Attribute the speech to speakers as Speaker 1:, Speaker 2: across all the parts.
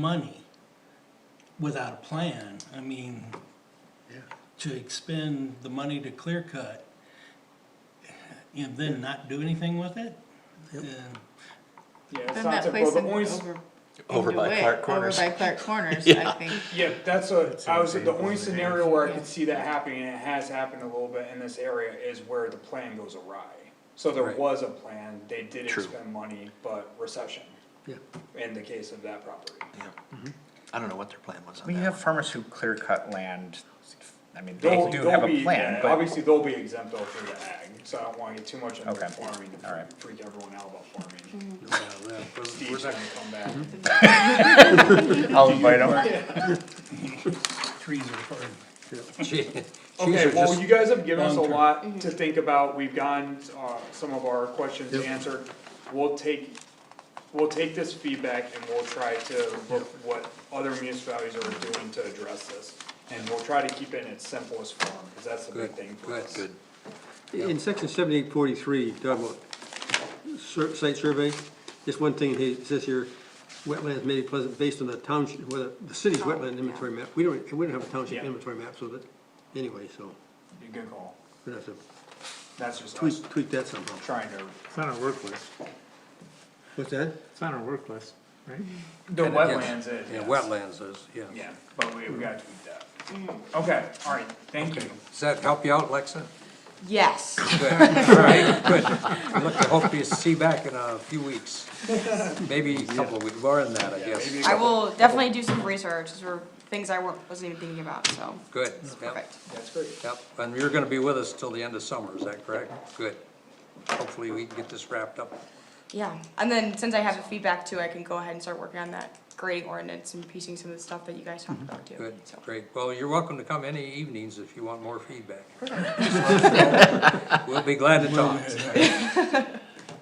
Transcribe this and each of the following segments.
Speaker 1: money without a plan. I mean, to expend the money to clear cut and then not do anything with it? eh, And
Speaker 2: Yeah, it's
Speaker 3: Then
Speaker 2: not
Speaker 3: that
Speaker 2: typical,
Speaker 3: place
Speaker 2: but
Speaker 3: in
Speaker 2: only,
Speaker 3: over.
Speaker 4: Over
Speaker 3: into
Speaker 4: by
Speaker 3: it,
Speaker 4: Clark Corners.
Speaker 3: Over by Clark Corners, I
Speaker 4: Yeah.
Speaker 3: think.
Speaker 2: yeah, that's a, I was, the only scenario where I
Speaker 3: Yeah.
Speaker 2: could see that happening, and it has happened a little bit in this area, is where the plan goes awry. So there was a plan, they did
Speaker 4: True.
Speaker 2: expend money, but recession.
Speaker 5: Yeah.
Speaker 2: In the case of that property.
Speaker 4: I don't know what their plan was on
Speaker 6: We
Speaker 4: that.
Speaker 6: have farmers who clear cut land, I mean, they
Speaker 2: They'll,
Speaker 6: do have
Speaker 2: they'll
Speaker 6: a
Speaker 2: be, yeah,
Speaker 6: plan, but,
Speaker 2: obviously they'll be exempt though for the ag, so I don't wanna get too much into
Speaker 6: Okay.
Speaker 2: farming,
Speaker 6: All right. Mm-hmm.
Speaker 2: to freak everyone out about farming. Steve's
Speaker 5: We're
Speaker 2: gonna come back.
Speaker 6: I'll invite them.
Speaker 1: trees are hard.
Speaker 2: Okay, well, you guys have given us a
Speaker 1: long-term.
Speaker 2: lot to think about, we've gotten, uh, some of our questions answered. We'll take, we'll take this feedback and we'll try to look what other municipalities are doing to address this. And we'll try to keep it in its simplest form, cause that's the big
Speaker 5: Good,
Speaker 2: thing for
Speaker 5: good,
Speaker 2: us.
Speaker 5: good. In section seventy-eight forty-three, talking about sur- site survey, just one thing, he says here, wetlands may be pleasant based on the township, whether, the city's
Speaker 3: Oh,
Speaker 5: wetland
Speaker 3: yeah.
Speaker 5: inventory map, we don't, we don't have a township
Speaker 2: Yeah.
Speaker 5: inventory map, so that, anyway, so,
Speaker 2: Good call,
Speaker 5: we're gonna have to
Speaker 2: that's just us
Speaker 5: tweak, tweak that somehow.
Speaker 2: trying to.
Speaker 7: It's on our work list,
Speaker 5: What's that?
Speaker 7: it's on our work list, right?
Speaker 2: The wetlands is, yes.
Speaker 5: is,
Speaker 2: Yeah, but we, we gotta tweak that. Okay, alright, thank you.
Speaker 8: Does that help you out, Lexa?
Speaker 3: Yes.
Speaker 8: Good, all right, good. I look to hope you see back in a few weeks, maybe a couple of weeks, more than that, I guess.
Speaker 3: I will definitely do some research, these were things I wa- wasn't even thinking about, so,
Speaker 8: Good, yep,
Speaker 3: perfect.
Speaker 2: That's great.
Speaker 8: yep. And you're gonna be with us till the end of summer, is that correct? Good. Hopefully we can get this wrapped up.
Speaker 3: Yeah, and then since I have the feedback too, I can go ahead and start working on that grading ordinance and piecing some of the stuff that you guys talked about too.
Speaker 8: Good,
Speaker 3: so.
Speaker 8: great. Well, you're welcome to come any evenings if you want more feedback. We'll be glad to talk.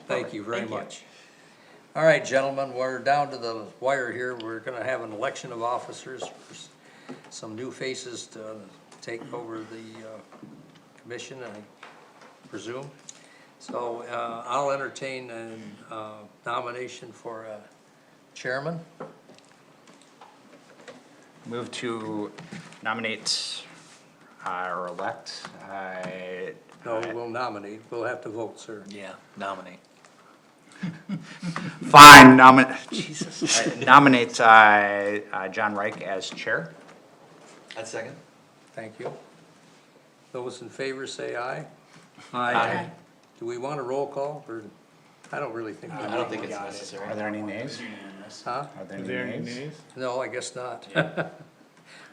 Speaker 8: Thank you very
Speaker 3: Thank you.
Speaker 8: much. All right, gentlemen, we're down to the wire here. We're gonna have an election of officers. There's Some new faces to take over the, uh, commission, I presume. So, uh, I'll entertain an, uh, nomination for, uh, chairman.
Speaker 6: Move to nominate uh, or elect, uh,
Speaker 8: No, we'll nominate. We'll have to vote, sir.
Speaker 4: Yeah, nominate.
Speaker 6: fine, nominate, Jesus, uh, nominate, uh, uh, John Reich as chair.
Speaker 4: I'd second.
Speaker 8: Thank you. Those in favor say aye.
Speaker 3: Okay.
Speaker 8: Do we want a roll call or, I don't really think. we
Speaker 4: I
Speaker 8: do.
Speaker 4: don't think it's
Speaker 6: Are
Speaker 4: necessary.
Speaker 6: there any nays?
Speaker 2: Unanimous.
Speaker 8: Huh?
Speaker 6: Are there any nays?
Speaker 8: No, I guess not.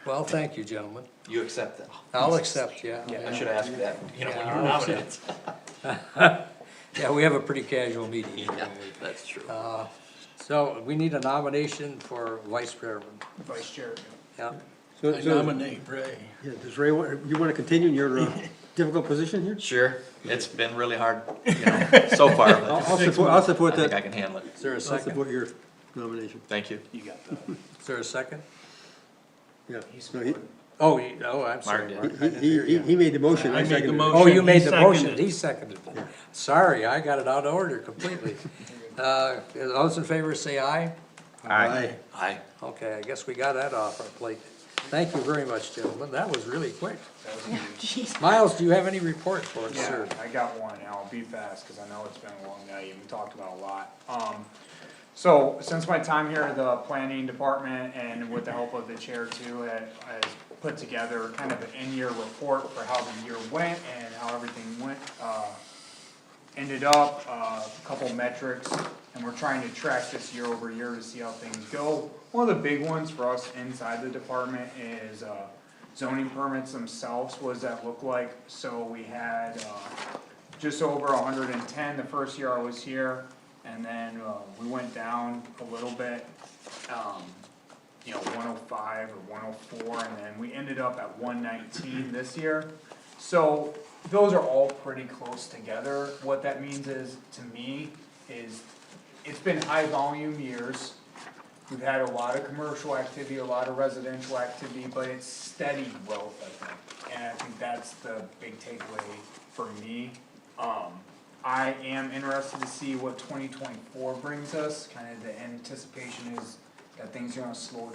Speaker 8: Well, thank you, gentlemen.
Speaker 4: You accept that.
Speaker 8: I'll accept, yeah.
Speaker 4: I
Speaker 8: yeah.
Speaker 4: should ask that, you know, when you were
Speaker 8: Yeah, I'll accept.
Speaker 4: nominated.
Speaker 8: Yeah, we have a pretty casual meeting. here,
Speaker 4: Yeah,
Speaker 8: don't we?
Speaker 4: that's true.
Speaker 8: So we need a nomination for vice chairman.
Speaker 2: Vice Chair.
Speaker 8: Yeah,
Speaker 1: I
Speaker 5: So, so,
Speaker 1: nominate Ray.
Speaker 5: yeah, does Ray, wa- you wanna continue in your uh, difficult position here?
Speaker 4: Sure, it's been really hard, you know, so far,
Speaker 5: I'll,
Speaker 4: but
Speaker 5: I'll support, I'll support
Speaker 4: I think I
Speaker 5: that,
Speaker 4: can handle it.
Speaker 8: is there a
Speaker 5: I'll
Speaker 8: second?
Speaker 5: support your nomination,
Speaker 4: Thank you.
Speaker 8: Is there a second?
Speaker 5: yeah. No, he-
Speaker 8: Oh, you- oh, I'm sorry.
Speaker 4: Mark
Speaker 8: Mark, I
Speaker 5: He,
Speaker 8: didn't hear
Speaker 5: he, he-
Speaker 8: you.
Speaker 5: he made the motion,
Speaker 1: I made
Speaker 5: I
Speaker 1: the
Speaker 5: seconded it.
Speaker 1: motion.
Speaker 8: Oh, you made
Speaker 1: He
Speaker 8: the motion,
Speaker 1: seconded.
Speaker 8: he seconded it. Sorry, I got it out of order completely. Uh, those in favor say aye.
Speaker 5: Aye.
Speaker 4: Aye.
Speaker 8: Okay, I guess we got that off our plate. Thank you very much, gentlemen, that was really quick.
Speaker 3: Jeez.
Speaker 8: Miles, do you have any report for us,
Speaker 2: Yeah,
Speaker 8: sir?
Speaker 2: I got one, and I'll be fast, cause I know it's been a long night, and we talked about a lot. Um, so, since my time here, the planning department, and with the help of the chair too, ha- has put together kind of an in-year report for how the year went and how everything went, uh, ended up, uh, a couple metrics, and we're trying to track this year over year to see how things go. One of the big ones for us inside the department is, uh, zoning permits themselves, what does that look like? So we had, uh, just over hundred and ten the first year I was here, and then, uh, we went down a little bit, um, you know, one oh five or one oh four, and then we ended up at one nineteen this year. So, those are all pretty close together, what that means is, to me, is, it's been high volume years. We've had a lot of commercial activity, a lot of residential activity, but it's steady growth, I think, and I think that's the big takeaway for me. Um, I am interested to see what twenty twenty-four brings us, kind of the anticipation is that things are gonna slow